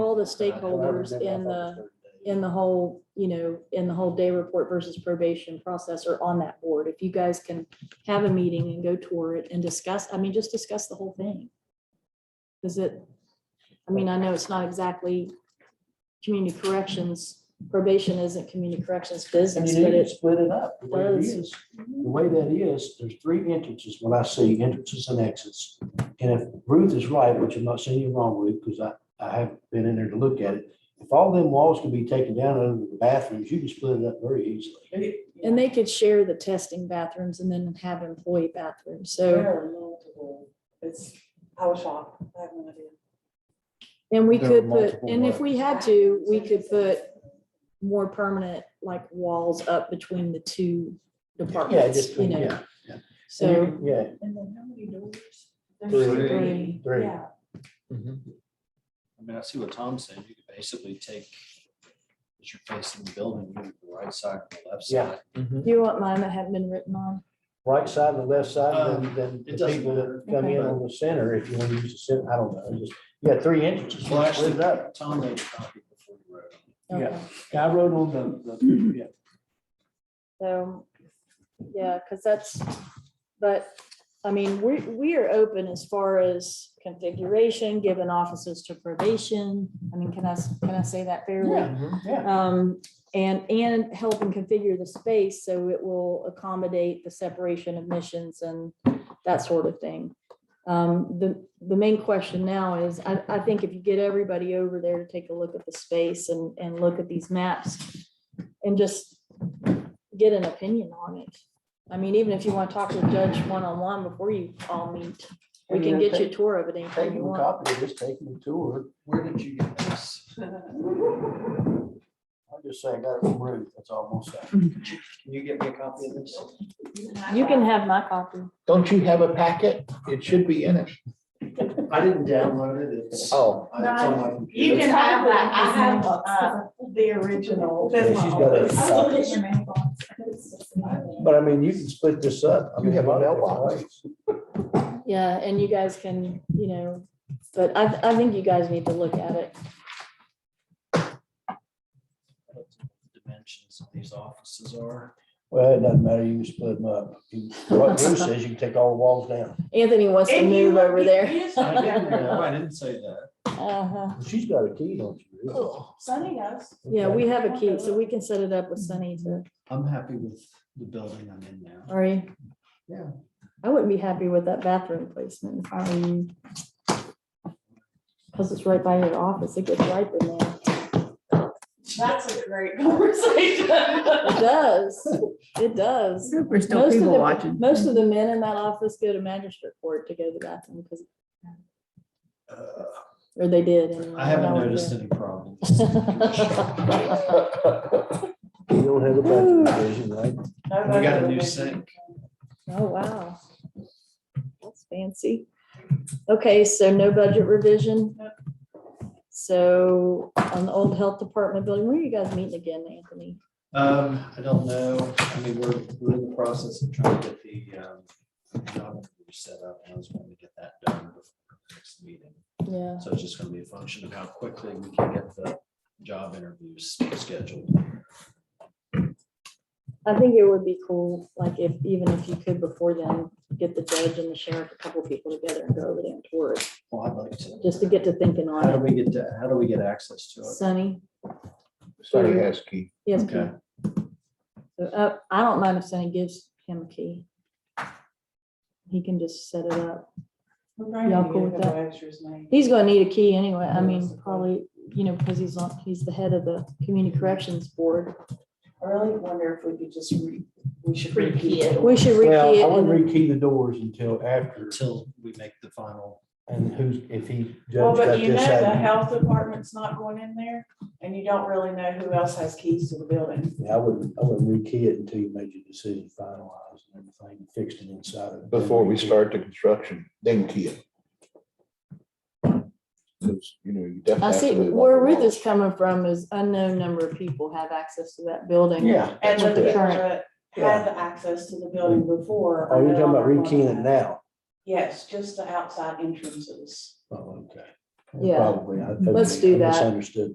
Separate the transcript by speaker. Speaker 1: Uh,
Speaker 2: the stakeholders in the, in the whole, you know, in the whole day report versus probation process are on that board. If you guys can have a meeting and go tour it and discuss, I mean, just discuss the whole thing. Is it, I mean, I know it's not exactly community corrections, probation isn't community corrections
Speaker 3: And
Speaker 2: business,
Speaker 3: you
Speaker 2: but
Speaker 3: need to
Speaker 2: it's,
Speaker 3: split it up. The way it
Speaker 2: does.
Speaker 3: is, the way that is, there's three entrances, when I see entrances and exits. And if Ruth is right, which I'm not saying you're wrong, Ruth, because I, I have been in there to look at it. If all them walls could be taken down other than the bathrooms, you can split it up very easily.
Speaker 2: and they could share the testing bathrooms and then have employee bathrooms. So,
Speaker 4: There are multiple, it's, I was shocked, I have no idea.
Speaker 2: and we
Speaker 1: There are
Speaker 2: could put,
Speaker 1: multiple
Speaker 2: and if we had to, we could put more permanent, like walls up between the two
Speaker 3: Yeah,
Speaker 2: departments,
Speaker 3: just,
Speaker 2: you know,
Speaker 3: yeah.
Speaker 2: so.
Speaker 3: Yeah,
Speaker 4: And then how many doors?
Speaker 1: Three.
Speaker 2: Three.
Speaker 3: three.
Speaker 4: Yeah.
Speaker 5: I mean, I see what Tom's saying. You could basically take, as you're facing the building, move the right side or the left
Speaker 3: Yeah.
Speaker 5: side.
Speaker 3: Mm-hmm.
Speaker 2: Do you want mine that have been written on?
Speaker 3: Right side and the left side,
Speaker 5: Um,
Speaker 3: and then
Speaker 5: it
Speaker 3: the
Speaker 5: doesn't
Speaker 3: people that
Speaker 5: matter.
Speaker 3: come in
Speaker 2: Okay.
Speaker 3: on the center, if you want to use the center, I don't know, just, yeah, three entrances.
Speaker 5: Well,
Speaker 3: you
Speaker 5: actually,
Speaker 3: Split it up.
Speaker 5: Tom made a copy before you wrote. it.
Speaker 3: Yeah.
Speaker 2: Okay.
Speaker 3: Yeah, I wrote on the, the, yeah.
Speaker 2: So, yeah, because that's, but, I mean, we, we are open as far as configuration, given offices to probation. I mean, can I, s- can I say that fairly?
Speaker 4: Mm-hmm.
Speaker 3: Yeah.
Speaker 2: Um, and, and helping configure the space so it will accommodate the separation of missions and that sort of thing. Um, the, the main question now is, I, I think if you get everybody over there to take a look at the space and, and look at these maps and just get an opinion on it. I mean, even if you want to talk to the judge one-on-one before you all meet, we can get you a tour of it anytime you
Speaker 3: Taking a
Speaker 2: want.
Speaker 3: copy of this, taking a tour,
Speaker 5: Where did you get this?
Speaker 3: I'll just say I got it from Ruth, that's all I'm gonna say.
Speaker 5: Can you get me a copy of this?
Speaker 2: You can have my copy.
Speaker 1: Don't you have a packet? It should be in it.
Speaker 5: I didn't download it. It's-
Speaker 1: Oh.
Speaker 5: I- it's on my computer.
Speaker 4: You can have that, I have,
Speaker 6: It's
Speaker 4: uh, the original.
Speaker 3: Yeah,
Speaker 4: That's my
Speaker 3: she's got it.
Speaker 4: oldest.
Speaker 6: I looked at your mailbox.
Speaker 3: But I mean, you can split this up. I
Speaker 1: You
Speaker 3: mean,
Speaker 1: have a
Speaker 3: lot of
Speaker 1: mailbox.
Speaker 3: different ways.
Speaker 2: Yeah, and you guys can, you know, but I, I think you guys need to look at it.
Speaker 5: I don't know what the Dimensions of these offices are.
Speaker 3: Well, it doesn't matter, you can split them up. You- What Ruth says, you can take all the walls down.
Speaker 2: Anthony wants to
Speaker 4: If you
Speaker 2: move
Speaker 4: look-
Speaker 2: over there.
Speaker 4: you just-
Speaker 5: I didn't know. I didn't say that.
Speaker 2: Uh-huh.
Speaker 3: She's got a key, don't you? Ruth?
Speaker 4: Sunny knows.
Speaker 2: Yeah,
Speaker 3: Okay.
Speaker 2: we have a key, so we can set it up with Sunny to,
Speaker 5: I'm happy with the building I'm in now.
Speaker 2: are you?
Speaker 5: Yeah.
Speaker 2: I wouldn't be happy with that bathroom placement, if I were you. Cause it's right by your office, it gets ripe in there.
Speaker 4: That's a great conversation.
Speaker 2: It does, it does.
Speaker 6: There's
Speaker 2: Most of the, most of the men in that office go to magistrate court to go to the bathroom, because,
Speaker 5: Uh,
Speaker 2: or they did. anyway,
Speaker 5: I
Speaker 2: when
Speaker 5: haven't
Speaker 2: was
Speaker 5: noticed
Speaker 2: there.
Speaker 5: any problems.
Speaker 3: You don't have a bathroom division, right?
Speaker 5: We got a new sink.
Speaker 2: Oh, wow. That's fancy. Okay, so no budget revision. So on the old health department building, where are you guys meeting again, Anthony?
Speaker 5: Um, I don't know. I mean, we're, we're in the process of trying to get the, um, job set up. and I was going to get that done before the next meeting.
Speaker 2: Yeah.
Speaker 5: So it's just gonna be a function of how quickly we can get the job interviews scheduled.
Speaker 2: I think it would be cool, like if, even if you could before then, get the judge and the sheriff, a couple people together and go over there and tour it,
Speaker 5: Well, I'd like to.
Speaker 2: just to get to thinking on
Speaker 5: How do
Speaker 2: it.
Speaker 5: we get, to- how do we get access to it?
Speaker 2: Sunny,
Speaker 1: Sorry, ask you.
Speaker 2: yes,
Speaker 5: Okay.
Speaker 2: Pete. So, uh, I don't mind if Sunny gives him a key. He can just set it up. Y'all cool with that? He's gonna need a key anyway, I mean, probably, you know, because he's on, he's the head of the community corrections board.
Speaker 4: I really wonder if we could just re, we should
Speaker 6: Repeat
Speaker 4: repeat it.
Speaker 2: We should rekey
Speaker 3: Well,
Speaker 2: it
Speaker 3: I wouldn't
Speaker 2: and
Speaker 3: rekey the doors until after,
Speaker 5: Until we make the final,
Speaker 3: and who's, if he
Speaker 4: Well,
Speaker 3: judge got
Speaker 4: but you know,
Speaker 3: this
Speaker 4: the
Speaker 3: out.
Speaker 4: health department's not going in there and you don't really know who else has keys to the building.
Speaker 3: Yeah, I wouldn't, I wouldn't rekey it until you made your decision finalized and everything fixed and inside of it.
Speaker 1: Before we start the construction, then kill. Because, you know, you
Speaker 2: I
Speaker 1: definitely.
Speaker 2: see,
Speaker 1: have to move on
Speaker 2: where
Speaker 1: the
Speaker 2: Ruth
Speaker 1: walls.
Speaker 2: is coming from is unknown number of people have access to that building.
Speaker 3: Yeah.
Speaker 4: And
Speaker 2: That's
Speaker 4: the
Speaker 2: what they're-
Speaker 4: people that had the access to the building before.
Speaker 3: Oh,
Speaker 4: are
Speaker 3: you're
Speaker 4: no
Speaker 3: talking about
Speaker 4: longer going
Speaker 3: rekeying it
Speaker 4: in.
Speaker 3: now?
Speaker 4: Yes, just the outside entrances.
Speaker 3: Oh, okay.
Speaker 2: Yeah.
Speaker 3: Probably. I-
Speaker 2: Let's do
Speaker 3: I
Speaker 2: that.
Speaker 3: Misunderstood.